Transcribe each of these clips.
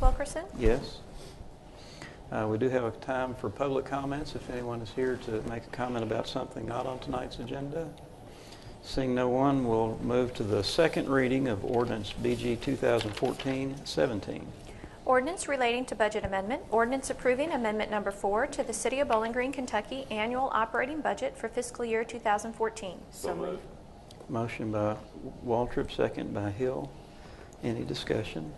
Wilkerson? Yes. Uh, We do have a time for public comments, if anyone is here to make a comment about something not on tonight's agenda. Seeing no one, we'll move to the second reading of ordinance BG 2014-17. Ordinance relating to budget amendment. Ordinance approving amendment number four to the City of Bowling Green, Kentucky annual operating budget for fiscal year 2014. So moved. Motion by Waltrip, second by Hill. Any discussion?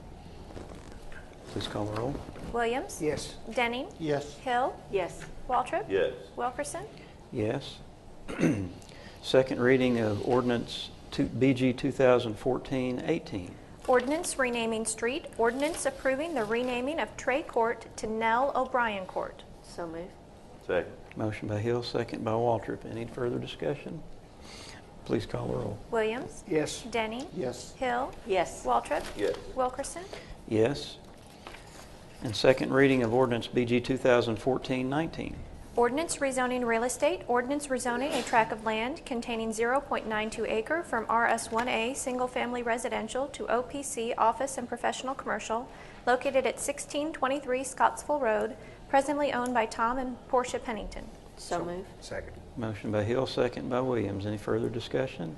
Please call the roll. Williams? Yes. Denning? Yes. Hill? Yes. Waltrip? Yes. Wilkerson? Yes. Second reading of ordinance two- BG 2014-18. Ordinance renaming street. Ordinance approving the renaming of Trey Court to Nell O'Brien Court. So moved. Second. Motion by Hill, second by Waltrip. Any further discussion? Please call the roll. Williams? Yes. Denning? Yes. Hill? Yes. Waltrip? Yes. Wilkerson? Yes. And second reading of ordinance BG 2014-19. Ordinance rezoning real estate, ordinance rezoning a tract of land containing 0.92 acre from RS1A single-family residential to OPC office and professional commercial located at 1623 Scottsville Road, presently owned by Tom and Portia Pennington. So moved. Second. Motion by Hill, second by Williams. Any further discussion?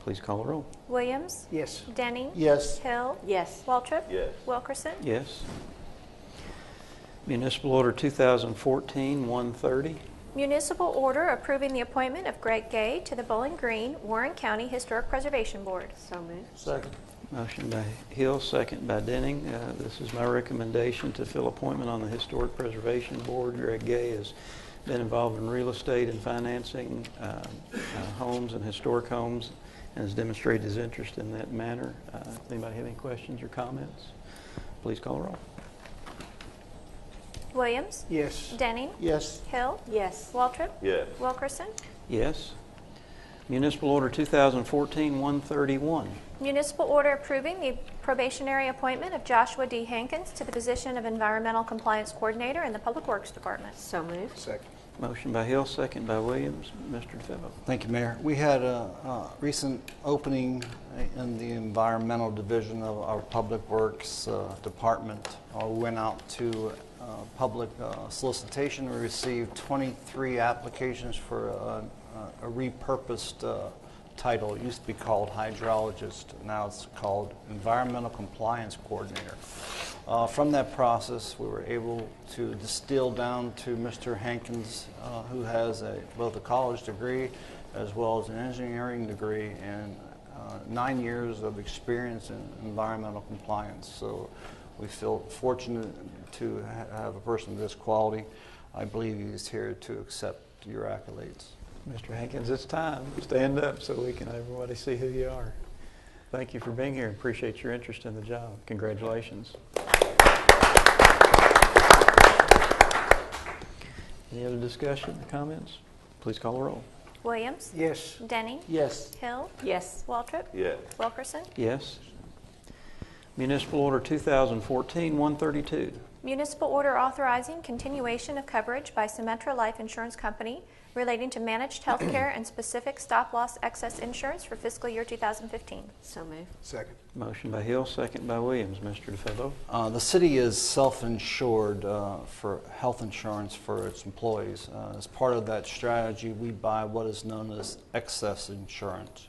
Please call the roll. Williams? Yes. Denning? Yes. Hill? Yes. Waltrip? Yes. Wilkerson? Yes. Municipal Order 2014-130. Municipal order approving the appointment of Greg Gay to the Bowling Green, Warren County Historic Preservation Board. So moved. Second. Motion by Hill, second by Denning. Uh, This is my recommendation to fill appointment on the Historic Preservation Board. Greg Gay has been involved in real estate and financing um, uh, homes and historic homes and has demonstrated his interest in that manner. Uh, Anybody have any questions or comments? Please call the roll. Williams? Yes. Denning? Yes. Hill? Yes. Waltrip? Yes. Wilkerson? Yes. Municipal Order 2014-131. Municipal order approving the probationary appointment of Joshua D. Hankins to the position of Environmental Compliance Coordinator in the Public Works Department. So moved. Second. Motion by Hill, second by Williams. Mr. DeFebo. Thank you, Mayor. We had a uh, recent opening in the environmental division of our Public Works uh, Department. Uh, We went out to uh, public uh, solicitation. We received 23 applications for uh, a repurposed uh, title. It used to be called hydrologist, now it's called environmental compliance coordinator. Uh, From that process, we were able to distill down to Mr. Hankins, uh, who has a- both a college degree as well as an engineering degree and uh, nine years of experience in environmental compliance. So we feel fortunate to ha- have a person of this quality. I believe he's here to accept your accolades. Mr. Hankins, it's time. Stand up so we can, everybody see who you are. Thank you for being here. Appreciate your interest in the job. Congratulations. Any other discussion, comments? Please call the roll. Williams? Yes. Denning? Yes. Hill? Yes. Waltrip? Yes. Wilkerson? Yes. Municipal Order 2014-132. Municipal order authorizing continuation of coverage by Symetra Life Insurance Company relating to managed healthcare and specific stop-loss excess insurance for fiscal year 2015. So moved. Second. Motion by Hill, second by Williams. Mr. DeFebo. Uh, the city is self-insured uh, for health insurance for its employees. Uh, as part of that strategy, we buy what is known as excess insurance.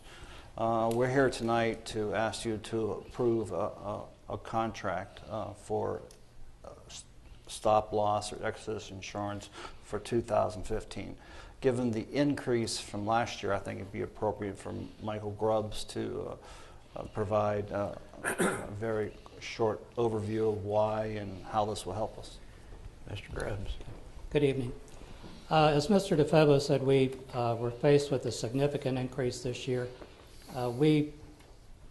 Uh, we're here tonight to ask you to approve a, a, a contract uh, for uh, s- stop loss or excess insurance for 2015. Given the increase from last year, I think it'd be appropriate for Michael Grubbs to uh, uh, provide uh, a very short overview of why and how this will help us. Mr. Grubbs. Good evening. Uh, As Mr. DeFebo said, we uh, were faced with a significant increase this year. Uh, We,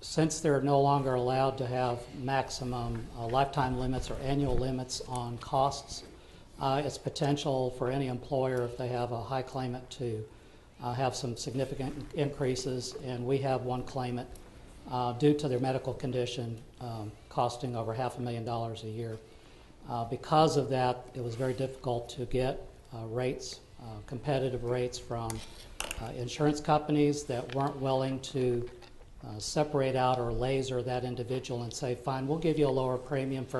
since they're no longer allowed to have maximum uh, lifetime limits or annual limits on costs, uh, it's potential for any employer, if they have a high claimant, to uh, have some significant increases. And we have one claimant uh, due to their medical condition um, costing over half a million dollars a year. Uh, Because of that, it was very difficult to get uh, rates, uh, competitive rates from uh, insurance companies that weren't willing to uh, separate out or laser that individual and say, fine, we'll give you a lower premium for